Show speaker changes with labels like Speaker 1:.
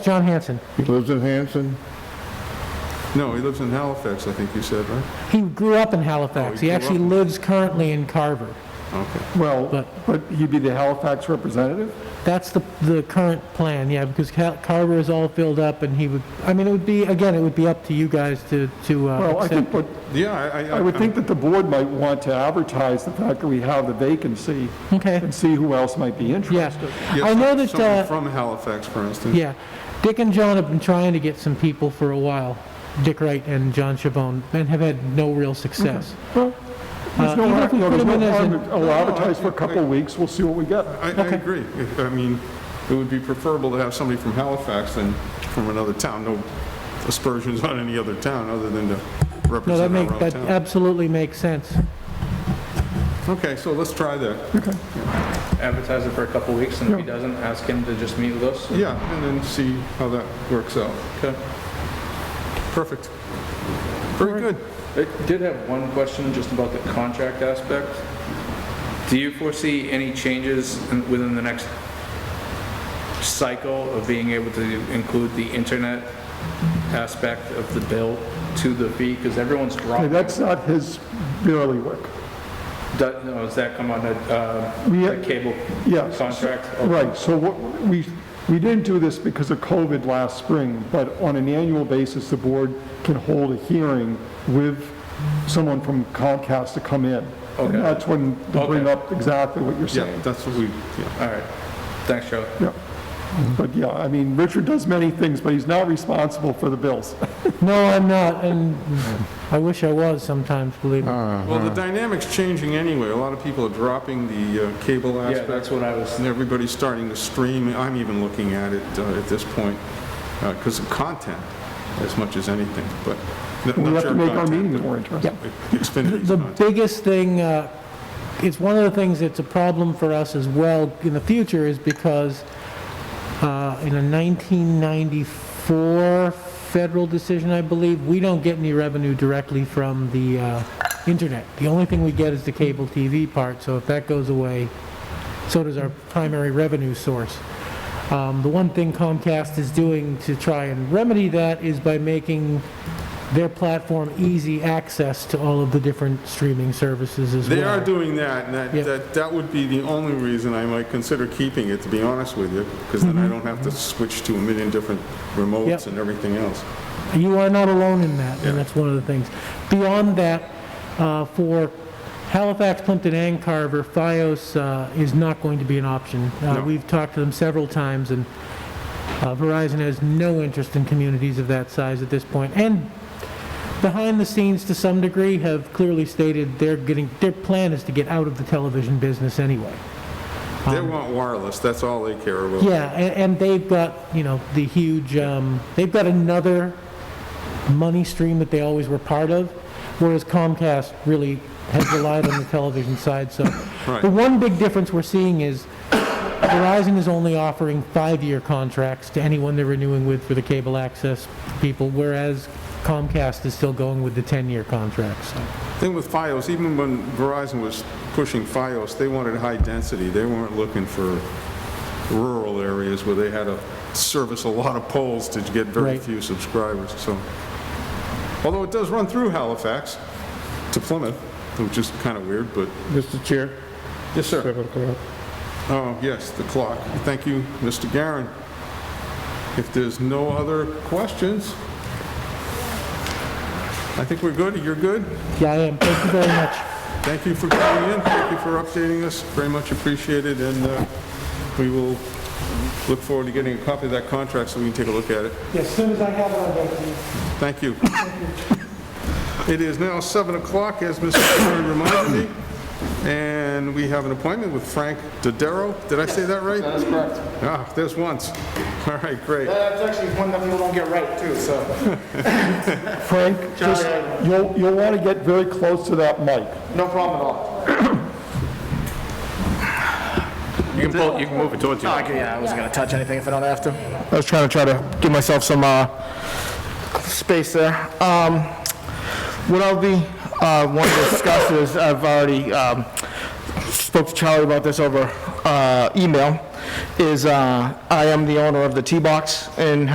Speaker 1: John Hanson.
Speaker 2: He lives in Hanson?
Speaker 3: No, he lives in Halifax, I think you said, right?
Speaker 1: He grew up in Halifax.
Speaker 3: Oh,
Speaker 1: He
Speaker 3: he grew
Speaker 1: actually
Speaker 3: up in-
Speaker 1: lives currently in Carver.
Speaker 3: Okay.
Speaker 2: Well,
Speaker 1: But-
Speaker 2: but he'd be the Halifax representative?
Speaker 1: That's the, the current plan, yeah, because Cal- Carver is all filled up and he would, I mean, it would be, again, it would be up to you guys to, to
Speaker 2: Well,
Speaker 1: uh,
Speaker 2: I think,
Speaker 1: accept.
Speaker 2: what-
Speaker 3: Yeah, I, I.
Speaker 2: I would think that the board might want to advertise the fact that we have the vacancy
Speaker 1: Okay,
Speaker 2: and see who else might be interested.
Speaker 1: yeah. I know that,
Speaker 3: Someone
Speaker 1: uh,
Speaker 3: from Halifax, for instance.
Speaker 1: yeah, Dick and John have been trying to get some people for a while, Dick Wright and John Chabon, and have had no real success.
Speaker 2: Well, There's
Speaker 1: Uh,
Speaker 2: no
Speaker 1: even
Speaker 2: har-
Speaker 1: if we
Speaker 2: no,
Speaker 1: put
Speaker 2: there's
Speaker 1: him in
Speaker 2: no
Speaker 1: as
Speaker 2: harm,
Speaker 1: an-
Speaker 2: to- I'll advertise for a couple of weeks, we'll see what we get.
Speaker 3: I, I agree. If- I mean, it would be preferable to have somebody from Halifax than from another town. No aspersions on any other town other than to
Speaker 1: No, that
Speaker 3: represent
Speaker 1: make,
Speaker 3: our own
Speaker 1: that
Speaker 3: town.
Speaker 1: absolutely makes sense.
Speaker 3: Okay, so let's try that.
Speaker 4: advertise it for a couple weeks, and if he doesn't, ask him to just meet with us.
Speaker 3: Yeah, and then see how that works out.
Speaker 4: Okay.
Speaker 3: Perfect. Very good.
Speaker 4: I did have one question just about the contract aspect. Do you foresee any changes in- within the next cycle of being able to include the internet aspect of the bill to the fee? Because everyone's
Speaker 2: Okay,
Speaker 4: dropping.
Speaker 2: That's not his barely work.
Speaker 4: Does no, does that come on the uh,
Speaker 2: We-
Speaker 4: the cable
Speaker 2: Yes.
Speaker 4: contract?
Speaker 2: Right, so what, we, we didn't do this because of COVID last spring, but on an annual basis, the board can hold a hearing with someone from Comcast to come in. And
Speaker 4: Okay.
Speaker 2: that's when they bring
Speaker 4: Okay.
Speaker 2: up exactly what you're
Speaker 3: Yeah,
Speaker 2: saying.
Speaker 3: that's what we, yeah.
Speaker 4: All right. Thanks, Charlie.
Speaker 2: Yeah. But yeah, I mean, Richard does many things, but he's not responsible for the bills.
Speaker 1: No, I'm not, and I wish I was sometimes, believe me.
Speaker 3: Well, the dynamic's changing anyway. A lot of people are dropping the uh, cable aspect.
Speaker 4: Yeah, that's what I was
Speaker 3: And everybody's starting to stream, I'm even looking at it uh, at this point, because of content as much as anything, but. not-
Speaker 2: We
Speaker 3: not
Speaker 2: have to
Speaker 3: your
Speaker 2: make our
Speaker 3: content,
Speaker 2: meetings more interesting.
Speaker 3: but Xfinity's
Speaker 1: The
Speaker 3: content.
Speaker 1: biggest thing, uh, it's one of the things that's a problem for us as well in the future is because uh, in a 1994 federal decision, I believe, we don't get any revenue directly from the uh, internet. The only thing we get is the cable TV part, so if that goes away, so does our primary revenue source. Um, The one thing Comcast is doing to try and remedy that is by making their platform easy access to all of the different streaming services as well.
Speaker 3: They are doing that, and that,
Speaker 1: Yeah.
Speaker 3: that, that would be the only reason I might consider keeping it, to be honest with you, because then I
Speaker 2: Mm-hmm.
Speaker 3: don't have to switch to a million different remotes
Speaker 1: Yep.
Speaker 3: and everything else.
Speaker 1: You are not alone in that,
Speaker 3: Yeah.
Speaker 1: and that's one of the things. Beyond that, uh, for Halifax, Plimpton, and Carver, FiOS uh, is not going to be an option. Uh,
Speaker 3: No.
Speaker 1: We've talked to them several times, and uh, Verizon has no interest in communities of that size at this point. And behind the scenes, to some degree, have clearly stated they're getting, their plan is to get out of the television business anyway.
Speaker 2: Um,
Speaker 3: They want wireless, that's all they care about.
Speaker 1: Yeah, and, and they've got, you know, the huge, um, they've got another money stream that they always were part of, whereas Comcast really has relied on the television side, so.
Speaker 3: Right.
Speaker 1: The one big difference we're seeing is Verizon is only offering five-year contracts to anyone they're renewing with for the cable access people, whereas Comcast is still going with the 10-year contracts, so.
Speaker 3: Thing with FiOS, even when Verizon was pushing FiOS, they wanted high density. They weren't looking for rural areas where they had to service a lot of poles to get very
Speaker 1: Right.
Speaker 3: few subscribers, so. Although it does run through Halifax to Plymouth, which is kind of weird, but,
Speaker 5: Mr. Chair,
Speaker 3: yes, sir.
Speaker 5: seven o'clock.
Speaker 3: Oh, yes, the clock. Thank you, Mr. Garin. If there's no other questions, I think we're good. You're good?
Speaker 1: Yeah, I am, thank you very much.
Speaker 3: Thank you for coming in, thank you for updating us, very much appreciated, and uh, we will look forward to getting a copy of that contract so we can take a look at it.
Speaker 1: As soon as I have it, I'll get to you.
Speaker 3: Thank you. It is now 7 o'clock, as Mr. Curran reminded me, and we have an appointment with Frank Dodaro. Did I say that right?
Speaker 6: That's correct.
Speaker 3: Ah, there's once. All right, great.
Speaker 6: That's actually one that people don't get right, too, so,
Speaker 2: Frank, just, you'll, you'll want to get very close to that mic.
Speaker 6: no problem at all.
Speaker 4: You can pull, you can move it towards you.
Speaker 6: yeah, Oh, I wasn't gonna touch anything if I don't have to.
Speaker 7: I was trying to try to give myself some uh, space there. Um, what I'll be uh, wanting to discuss is I've already um, spoke to Charlie about this over uh, email. Is uh, I am the owner of the T box in